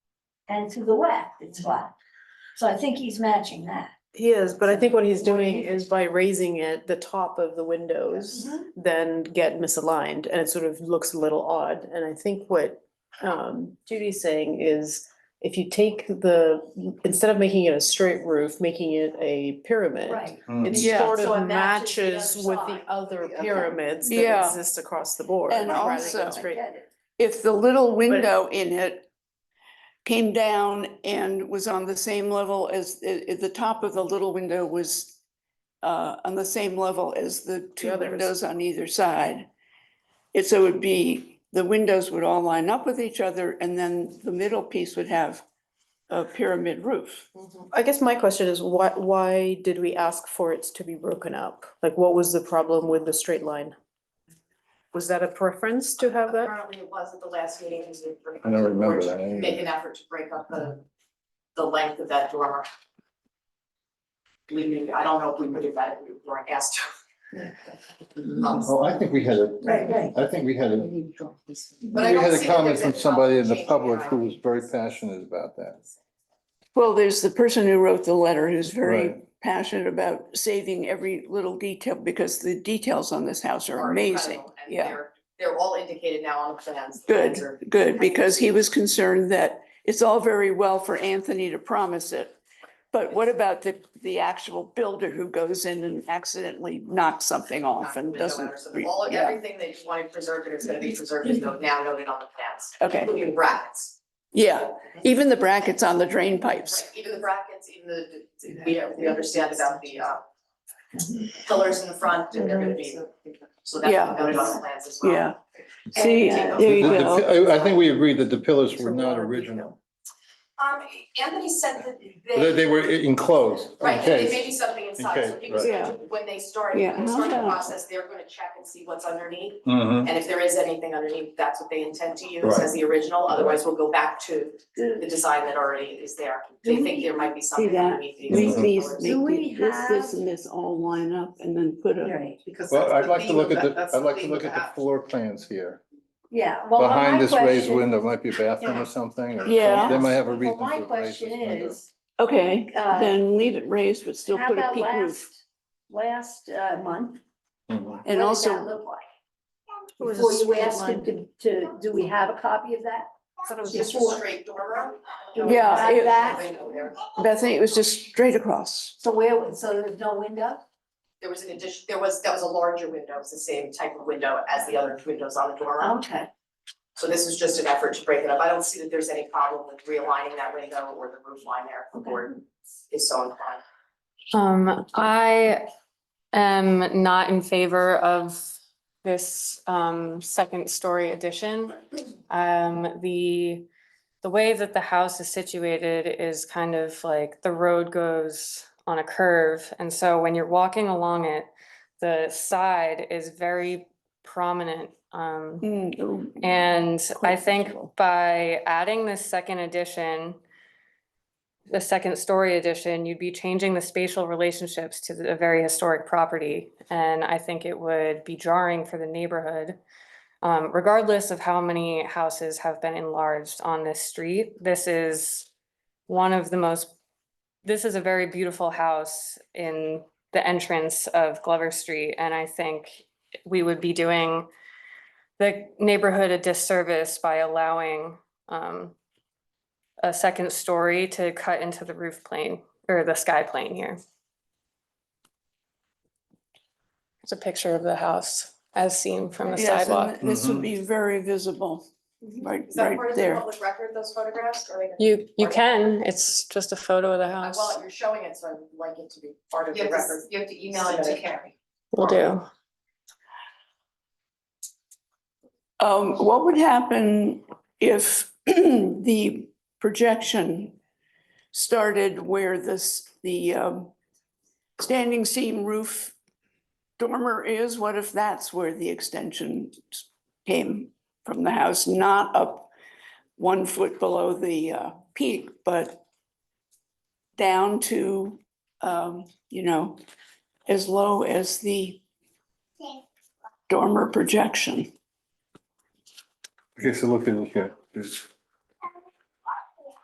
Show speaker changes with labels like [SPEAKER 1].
[SPEAKER 1] and to the wet, it's flat. So I think he's matching that.
[SPEAKER 2] He is, but I think what he's doing is by raising it, the top of the windows
[SPEAKER 1] Mhm.
[SPEAKER 2] then get misaligned and it sort of looks a little odd. And I think what um Judy's saying is if you take the, instead of making it a straight roof, making it a pyramid.
[SPEAKER 1] Right.
[SPEAKER 2] It
[SPEAKER 1] Yeah.
[SPEAKER 2] sort
[SPEAKER 1] So it
[SPEAKER 2] of
[SPEAKER 1] matches the
[SPEAKER 2] matches
[SPEAKER 1] other
[SPEAKER 2] with the
[SPEAKER 1] side.
[SPEAKER 2] other
[SPEAKER 1] Okay.
[SPEAKER 2] pyramids that
[SPEAKER 3] Yeah.
[SPEAKER 2] exist across the board.
[SPEAKER 3] And
[SPEAKER 2] rather than
[SPEAKER 3] also-
[SPEAKER 1] I
[SPEAKER 2] straight.
[SPEAKER 1] get it.
[SPEAKER 3] if the little window in it came down and was on the same level as, i- i- the top of the little window was uh, on the same level as the two
[SPEAKER 2] others.
[SPEAKER 3] windows on either side. It, so it would be, the windows would all line up with each other and then the middle piece would have a pyramid roof.
[SPEAKER 2] I guess my question is why, why did we ask for it to be broken up? Like, what was the problem with the straight line? Was that a preference to have that?
[SPEAKER 4] Apparently it was at the last meeting, because we.
[SPEAKER 5] I don't remember that either.
[SPEAKER 4] Make an effort to break up the, the length of that dormer. We, knew- I don't know if we would have that, if we weren't asked. Um,
[SPEAKER 5] Oh, I think we had
[SPEAKER 1] Right,
[SPEAKER 5] a,
[SPEAKER 1] right.
[SPEAKER 5] I think we had a, we
[SPEAKER 4] But I don't
[SPEAKER 5] had
[SPEAKER 4] see
[SPEAKER 5] a
[SPEAKER 4] that
[SPEAKER 5] comment
[SPEAKER 4] there's
[SPEAKER 5] from
[SPEAKER 4] a
[SPEAKER 5] somebody in the
[SPEAKER 4] change
[SPEAKER 5] public
[SPEAKER 4] there.
[SPEAKER 5] who was very passionate about that.
[SPEAKER 3] Well, there's the person who wrote the letter who's very
[SPEAKER 5] Right.
[SPEAKER 3] passionate about saving every little detail because the details on this house are
[SPEAKER 4] are
[SPEAKER 3] amazing.
[SPEAKER 4] incredible, and
[SPEAKER 3] Yeah.
[SPEAKER 4] They're, they're all indicated now on the plans. The plans are-
[SPEAKER 3] Good, good, because he was concerned that it's all very well for Anthony to promise it. But what about the, the actual builder who goes in and accidentally knocks something off
[SPEAKER 4] not
[SPEAKER 3] and
[SPEAKER 4] window
[SPEAKER 3] doesn't?
[SPEAKER 4] letters,
[SPEAKER 3] re-
[SPEAKER 4] All,
[SPEAKER 3] yeah,
[SPEAKER 4] everything that you wanted preserved is gonna be preserved, is now noted on the plans,
[SPEAKER 3] Okay,
[SPEAKER 4] including brackets.
[SPEAKER 3] yeah, even the brackets on the drain pipes.
[SPEAKER 4] Right, Even the brackets, even the, we, we understand about the, uh, pillars in the front, and they're gonna be, so that's
[SPEAKER 3] Yeah.
[SPEAKER 4] noted on the plans as well.
[SPEAKER 3] Yeah. See,
[SPEAKER 4] And-
[SPEAKER 3] there you
[SPEAKER 5] The- the-
[SPEAKER 3] go.
[SPEAKER 5] I, I think we agreed that the pillars were not original,
[SPEAKER 4] Um, Anthony said that
[SPEAKER 5] that
[SPEAKER 4] they,
[SPEAKER 5] they were enclosed, in
[SPEAKER 4] right, that there may
[SPEAKER 5] case.
[SPEAKER 4] be something inside, so
[SPEAKER 5] case,
[SPEAKER 4] people,
[SPEAKER 3] right. Yeah.
[SPEAKER 4] when they start,
[SPEAKER 3] Yeah.
[SPEAKER 4] when they start the process, they're gonna check and see what's underneath.
[SPEAKER 5] Mhm.
[SPEAKER 4] And if there is anything underneath, that's what they intend to use
[SPEAKER 5] Right.
[SPEAKER 4] as the original, otherwise we'll go back to the design that already is there. They think there might be something
[SPEAKER 3] that?
[SPEAKER 4] underneath these.
[SPEAKER 5] These-
[SPEAKER 4] pillars.
[SPEAKER 1] Do make we this, this, have- and
[SPEAKER 3] this all line up and then put
[SPEAKER 1] Right.
[SPEAKER 6] Because
[SPEAKER 5] Well,
[SPEAKER 6] that's
[SPEAKER 5] I'd like to
[SPEAKER 6] theme
[SPEAKER 5] look
[SPEAKER 6] of
[SPEAKER 5] at
[SPEAKER 6] that-
[SPEAKER 5] the,
[SPEAKER 6] that's
[SPEAKER 5] I'd like to
[SPEAKER 6] theme
[SPEAKER 5] look
[SPEAKER 6] of
[SPEAKER 5] at the
[SPEAKER 6] app.
[SPEAKER 5] floor plans here.
[SPEAKER 1] Yeah, well, my
[SPEAKER 5] Behind this raised
[SPEAKER 1] question-
[SPEAKER 5] window might be a bathroom
[SPEAKER 1] Yeah.
[SPEAKER 5] or something, or
[SPEAKER 3] Yeah.
[SPEAKER 5] they might have a
[SPEAKER 1] Well,
[SPEAKER 5] reason
[SPEAKER 1] my
[SPEAKER 5] to raise this
[SPEAKER 1] question
[SPEAKER 5] window.
[SPEAKER 1] is,
[SPEAKER 3] Okay,
[SPEAKER 1] Uh,
[SPEAKER 3] then leave it raised, but still
[SPEAKER 1] how
[SPEAKER 3] put a
[SPEAKER 1] about
[SPEAKER 3] peak roof.
[SPEAKER 1] last, last uh, month?
[SPEAKER 5] Mhm.
[SPEAKER 3] And
[SPEAKER 1] What did that
[SPEAKER 3] also,
[SPEAKER 1] look like?
[SPEAKER 2] It was a
[SPEAKER 1] Before you
[SPEAKER 2] straight
[SPEAKER 1] asked him to, to, do we have a copy of that?
[SPEAKER 4] Just a straight dormer.
[SPEAKER 1] Do we
[SPEAKER 3] Yeah,
[SPEAKER 1] have
[SPEAKER 3] it-
[SPEAKER 1] that?
[SPEAKER 3] Bethany, it was just straight across.
[SPEAKER 1] So where, so there's no window?
[SPEAKER 4] There was an addition, there was, that was a larger window, it was the same type of window as the other windows on the dormer.
[SPEAKER 6] Um,
[SPEAKER 1] Okay.
[SPEAKER 4] So this was just an effort to break it up. I don't see that there's any problem with realigning that window or the roof line there, if the board is so inclined.
[SPEAKER 7] Um, I am not in favor of this, um, second story addition. Um, the, the way that the house is situated is kind of like the road goes on a curve. And so when you're walking along it, the side is very prominent. Um,
[SPEAKER 3] Mm, oh.
[SPEAKER 7] and I think
[SPEAKER 3] Questionable.
[SPEAKER 7] by adding this second addition, the second story addition, you'd be changing the spatial relationships to the- a very historic property. And I think it would be jarring for the neighborhood. Um, regardless of how many houses have been enlarged on this street, this is one of the most, this is a very beautiful house in the entrance of Glover Street. And I think we would be doing the neighborhood a disservice by allowing um a second story to cut into the roof plane or the sky plane here. It's a picture of the house as seen from the
[SPEAKER 3] Yes,
[SPEAKER 7] sidewalk.
[SPEAKER 3] and This would
[SPEAKER 5] Mhm.
[SPEAKER 3] be very visible, right,
[SPEAKER 4] Is that part
[SPEAKER 3] right
[SPEAKER 4] of the
[SPEAKER 3] there.
[SPEAKER 4] public record, those photographs, or?
[SPEAKER 7] You you can, it's just a photo of the
[SPEAKER 4] Uh,
[SPEAKER 7] house.
[SPEAKER 4] Well, you're showing it, so I'd like it to be part of
[SPEAKER 6] You
[SPEAKER 4] the
[SPEAKER 6] have to,
[SPEAKER 4] record.
[SPEAKER 6] you have to email it to Carrie.
[SPEAKER 7] Will do.
[SPEAKER 3] Um, what would happen if the projection started where this, the, um, standing seam roof dormer is? What if that's where the extension came from the house, not up one foot below the, uh, peak, but down to, um, you know, as low as the dormer projection?
[SPEAKER 5] Okay, so look at it here, There's-